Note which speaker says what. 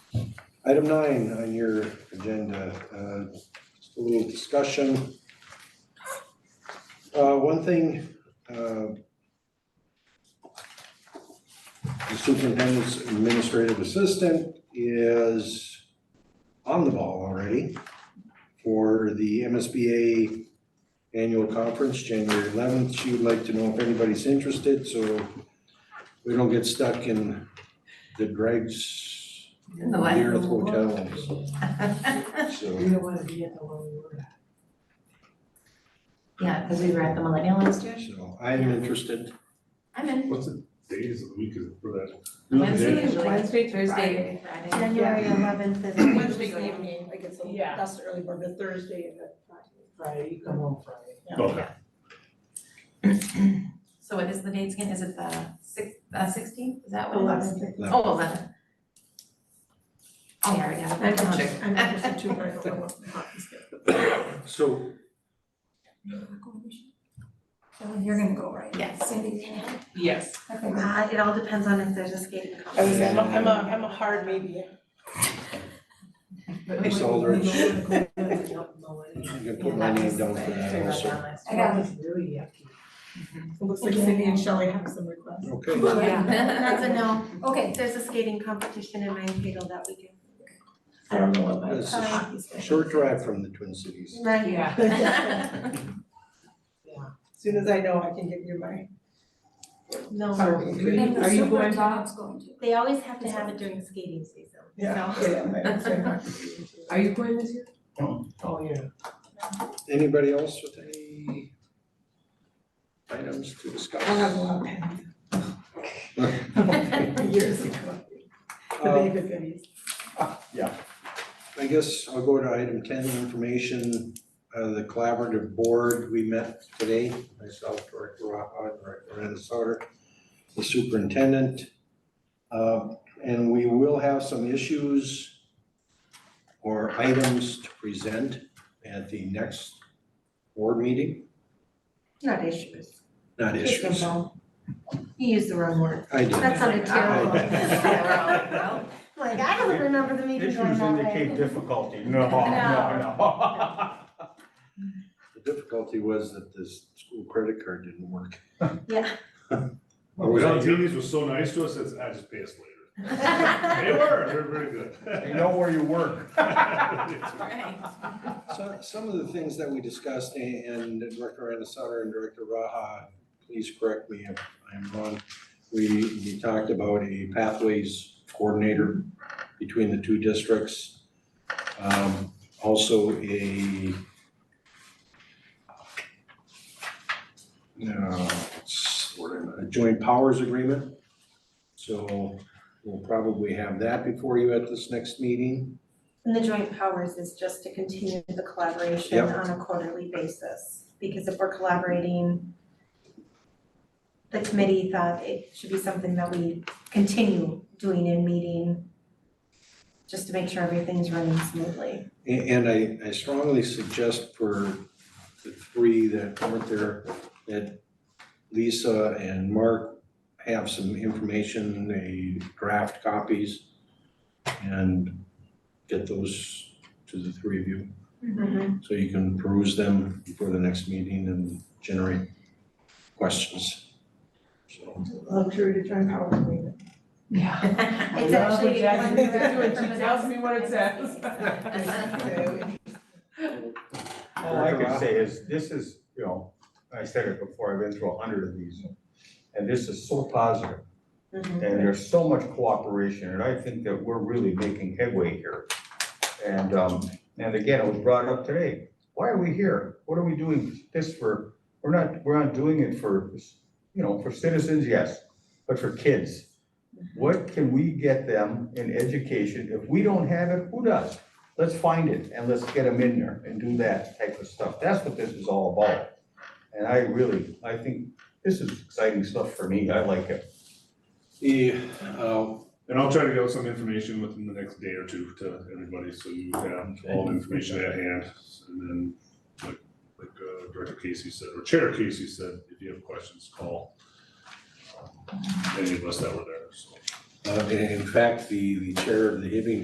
Speaker 1: Item nine on your agenda, uh, just a little discussion. Uh, one thing, uh, the superintendent's administrative assistant is on the ball already for the MSBA annual conference, January eleventh. She would like to know if anybody's interested, so we don't get stuck in the dregs
Speaker 2: The
Speaker 3: Oh,
Speaker 2: what?
Speaker 1: near the hotels,
Speaker 3: We
Speaker 1: so.
Speaker 3: don't wanna be at the low word.
Speaker 2: Yeah, because we were at the Millennial Institute.
Speaker 1: So I'm interested.
Speaker 2: I'm in.
Speaker 4: What's the days of the week is it for that?
Speaker 2: Wednesday,
Speaker 4: Day?
Speaker 2: Wednesday, Thursday, Friday.
Speaker 5: January eleventh is a Wednesday evening.
Speaker 3: like it's, that's the early part, the Thursday and the Friday. Friday, you come home Friday.
Speaker 4: Okay,
Speaker 2: So what is the dates again? Is it the six, uh, sixteenth? Is that what it is?
Speaker 5: Eleven.
Speaker 1: No.
Speaker 2: Oh, eleven. Oh, yeah, I already have it.
Speaker 3: I'm interested too, but I don't know what my hockey's gonna
Speaker 1: So
Speaker 5: So you're gonna go, right?
Speaker 2: Yes.
Speaker 5: Cindy's gonna go.
Speaker 6: Yes,
Speaker 5: Okay, uh, it all depends on if there's a skating
Speaker 6: I was,
Speaker 5: competition.
Speaker 6: I'm a, I'm a, I'm a hard maybe.
Speaker 3: be.
Speaker 1: Miss Aldridge.
Speaker 3: We don't wanna go to the Millennium.
Speaker 1: you can
Speaker 2: Yeah,
Speaker 1: put my
Speaker 2: that
Speaker 1: name
Speaker 2: was-
Speaker 1: down for
Speaker 2: I figured
Speaker 1: that
Speaker 2: that
Speaker 1: also.
Speaker 2: out last
Speaker 5: I got
Speaker 3: It's really yucky.
Speaker 6: It looks like Cindy and Shelley have some requests.
Speaker 1: Okay,
Speaker 5: Yeah, that's
Speaker 2: year.
Speaker 5: a no. Okay, there's a skating competition in Mankato that weekend.
Speaker 6: I don't know what my
Speaker 1: This is
Speaker 6: hockey's gonna be.
Speaker 1: short drive from the Twin Cities.
Speaker 5: Right.
Speaker 3: Yeah.
Speaker 6: Soon as I know, I can give you my.
Speaker 5: No.
Speaker 6: Are you going, Bob?
Speaker 5: They always have to have it during skating season,
Speaker 6: Yeah,
Speaker 5: so.
Speaker 6: yeah, my, my hockey's gonna be.
Speaker 3: Are you going this year? Oh, yeah.
Speaker 1: Anybody else with any items to discuss?
Speaker 6: I'll have a lot of that years ago, the
Speaker 1: Uh,
Speaker 6: David days.
Speaker 1: I guess I'll go to item ten, information, uh, the collaborative board, we met today, myself, Director Raha, Director Renasotter, the superintendent. Uh, and we will have some issues or items to present at the next board meeting,
Speaker 5: Not issues.
Speaker 1: not
Speaker 5: Kick them
Speaker 1: issues.
Speaker 5: out. You used the wrong word.
Speaker 1: I did.
Speaker 5: That sounded terrible.
Speaker 1: I
Speaker 5: Like, I don't remember the meeting going
Speaker 7: Issues
Speaker 5: that way.
Speaker 7: indicate difficulty, no,
Speaker 5: No.
Speaker 7: no, no.
Speaker 1: The difficulty was that this school credit card didn't work.
Speaker 5: Yeah.
Speaker 1: Or was I here?
Speaker 4: Zellatinis was so nice to us, it's, I just pay us later. They were, they were very good.
Speaker 7: You know where you work.
Speaker 1: So, some of the things that we discussed, a- and Director Anasar and Director Raha, please correct me if I'm wrong. We, we talked about a pathways coordinator between the two districts. Um, also a uh, what's the word I'm- a joint powers agreement. So we'll probably have that before you at this next meeting.
Speaker 5: And the joint powers is just to continue the collaboration
Speaker 1: Yep.
Speaker 5: on a quarterly basis, because if we're collaborating, the committee thought it should be something that we continue doing in meeting, just to make sure everything's running smoothly.
Speaker 1: A- And I, I strongly suggest for the three that weren't there, that Lisa and Mark have some information, they draft copies, and get those to the three of you, so you can peruse them before the next meeting and generate questions. So,
Speaker 6: Luxury to join power agreement.
Speaker 3: Yeah.
Speaker 5: It's
Speaker 6: Love what
Speaker 5: actually.
Speaker 6: Jackie
Speaker 5: one
Speaker 6: is doing.
Speaker 5: for
Speaker 6: She
Speaker 5: the
Speaker 6: tells
Speaker 5: next-
Speaker 6: me what it says.
Speaker 7: All I can say is, this is, you know, I said it before, I've been through a hundred of these, and this is so positive.
Speaker 5: Mhm.
Speaker 7: And there's so much cooperation, and I think that we're really making headway here. And, um, and again, it was brought up today, why are we here? What are we doing this for? We're not, we're not doing it for, you know, for citizens, yes, but for kids. What can we get them in education? If we don't have it, who does? Let's find it and let's get them in there and do that type of stuff. That's what this is all about. And I really, I think this is exciting stuff for me. I like it.
Speaker 1: The, uh,
Speaker 4: And I'll try to get some information within the next day or two to everybody, so you have all the information at hand. And then, like, like uh, Director Casey said, or Chair Casey said, if you have questions, call um, any of us that were there, so.
Speaker 1: uh, in fact, the, the chair of the Hibbing